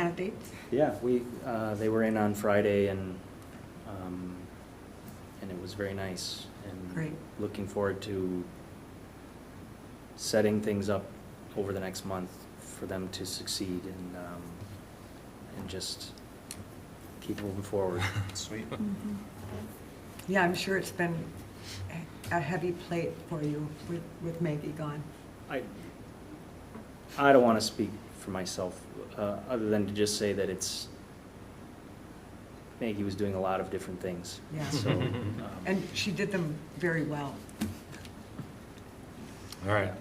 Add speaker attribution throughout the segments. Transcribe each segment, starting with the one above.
Speaker 1: candidates?
Speaker 2: Yeah, we, uh, they were in on Friday and, um, and it was very nice. and
Speaker 1: Great.
Speaker 2: Looking forward to setting things up over the next month for them to succeed and, um, and just keep moving forward.
Speaker 3: Sweet.
Speaker 1: Yeah, I'm sure it's been a heavy plate for you with, with Maggie gone.
Speaker 2: I, I don't want to speak for myself, uh, other than to just say that it's, Maggie was doing a lot of different things.
Speaker 1: Yeah.
Speaker 2: So, um,
Speaker 1: And she did them very well.
Speaker 3: All right.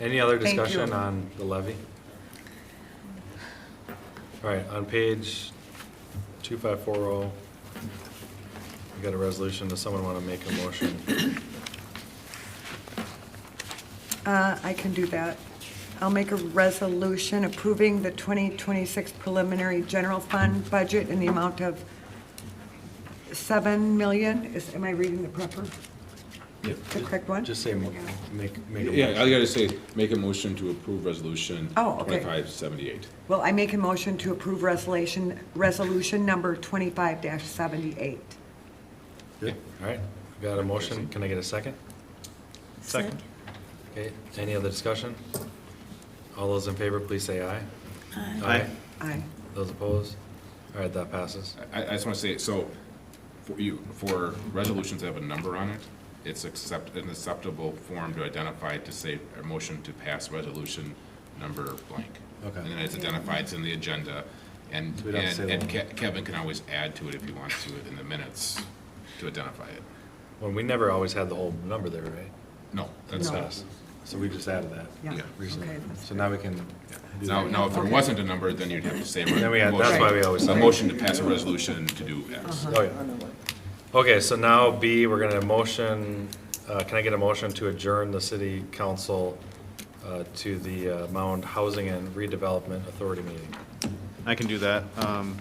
Speaker 3: Any other
Speaker 1: Thank you.
Speaker 3: discussion on the levy? All right, on page 2540, oh, we got a resolution. Does someone want to make a motion?
Speaker 1: Uh, I can do that. I'll make a resolution approving the 2026 preliminary general fund budget in the amount of 7 million. Is, am I reading the proper?
Speaker 3: Yep.
Speaker 1: The correct one?
Speaker 3: Just say, mo- make, make a
Speaker 4: Yeah, I
Speaker 3: motion.
Speaker 4: gotta say, make a motion to approve resolution
Speaker 1: Oh, okay.
Speaker 4: twenty-five seventy-eight.
Speaker 1: Well, I make a motion to approve resolution, resolution number 25-78.
Speaker 3: Yeah, All right, we got a motion. Can I get a second?
Speaker 5: Second.
Speaker 3: Okay, any other discussion? All those in favor, please say aye. Aye.
Speaker 1: Aye.
Speaker 3: Those opposed? All right, that passes.
Speaker 4: I, I just wanna say, so, for you, for resolutions that have a number on it, it's accept, an acceptable form to identify, to say, a motion to pass resolution number blank.
Speaker 3: Okay.
Speaker 4: And then it's identified, it's in the agenda, and,
Speaker 3: So we don't have to
Speaker 4: and
Speaker 3: say
Speaker 4: and
Speaker 3: the
Speaker 4: Ke- Kevin can always add to it if he wants to in the minutes to identify it.
Speaker 3: Well, we never always had the whole number there, right?
Speaker 4: No, that's
Speaker 1: No.
Speaker 4: not.
Speaker 3: us. So we just added that
Speaker 1: Yeah.
Speaker 4: Yeah.
Speaker 3: recently.
Speaker 1: Okay, that's
Speaker 3: So now we can. do
Speaker 4: Now,
Speaker 3: that.
Speaker 4: now, if there
Speaker 1: Okay.
Speaker 4: wasn't a number, then you'd have to say.
Speaker 3: Then we had- that's why we always
Speaker 4: A
Speaker 3: say-
Speaker 4: motion to pass a resolution to do X.
Speaker 3: Oh, yeah. Okay, so now B, we're gonna motion, uh, can I get a motion to adjourn the city council uh, to the uh, Mound Housing and Redevelopment Authority meeting?
Speaker 5: I can do that, um,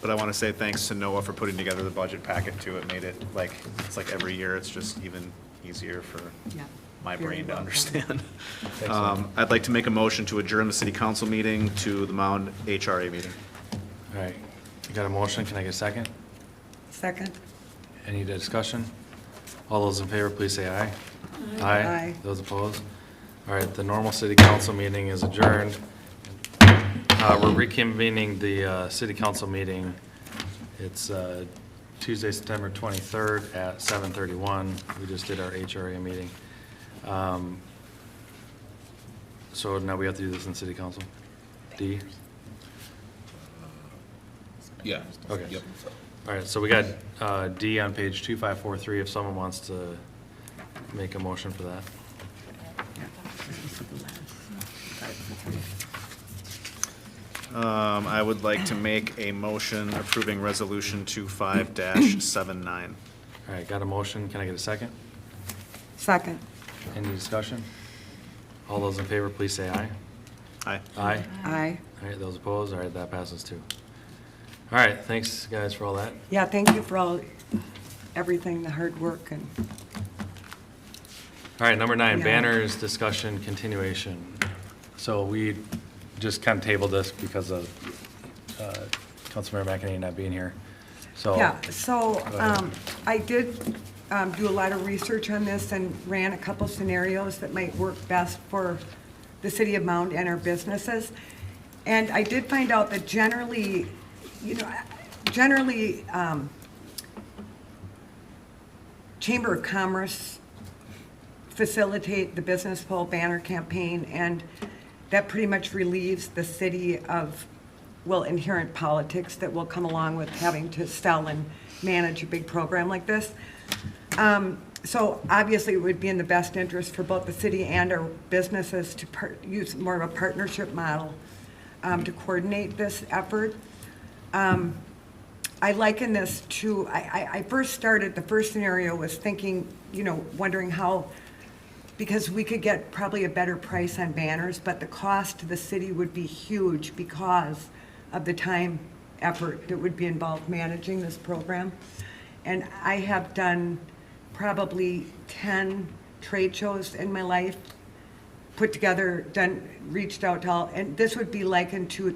Speaker 5: but I want to say thanks to Noah for putting together the budget packet too. It made it like, it's like every year, it's just even easier for
Speaker 1: Yeah.
Speaker 5: my
Speaker 1: Very well
Speaker 5: brain to
Speaker 1: done.
Speaker 5: understand.
Speaker 3: Thanks, Noah.
Speaker 5: Um, I'd like to make a motion to adjourn the city council meeting to the Mound HRA meeting.
Speaker 3: All right, you got a motion, can I get a second?
Speaker 1: Second?
Speaker 3: Any discussion? All those in favor, please say aye.
Speaker 1: Aye.
Speaker 3: Those opposed? All right, the normal city council meeting is adjourned. Uh, We're reconvening the uh, city council meeting. It's uh, Tuesday, September 23rd at 7:31. We just did our HRA meeting. Um, So now we have to do this in city council? D?
Speaker 4: Yeah.
Speaker 3: Okay.
Speaker 4: Yep.
Speaker 3: All right, so we got uh, D on page 2543, if someone wants to make a motion for that.
Speaker 5: Um, I would like to make a motion approving resolution two five dash seven nine.
Speaker 3: All right, got a motion, can I get a second?
Speaker 1: Second.
Speaker 3: Any discussion? All those in favor, please say aye.
Speaker 5: Aye.
Speaker 3: Aye.
Speaker 1: Aye.
Speaker 3: All right, those opposed, all right, that passes too. All right, thanks, guys, for all that.
Speaker 1: Yeah, thank you for all, everything, the hard work and,
Speaker 3: All right, number nine,
Speaker 1: Yeah.
Speaker 3: banners, discussion, continuation. So we just kind of tabled this because of uh, Councilmember McEnany not being here,
Speaker 5: Oh,
Speaker 3: so.
Speaker 1: yeah, so,
Speaker 3: Go ahead.
Speaker 1: um, I did, um, do a lot of research on this and ran a couple scenarios that might work best for the city of Mound and our businesses. And I did find out that generally, you know, generally, um, Chamber of Commerce facilitate the business pole banner campaign, and that pretty much relieves the city of, well, inherent politics that will come along with having to sell and manage a big program like this. Um, So obviously, it would be in the best interest for both the city and our businesses to par- use more of a partnership model um, to coordinate this effort. I liken this to, I, I, I first started, the first scenario was thinking, you know, wondering how, because we could get probably a better price on banners, but the cost to the city would be huge because of the time, effort that would be involved managing this program. And I have done probably ten trade shows in my life put together, done, reached out to all, and this would be likened to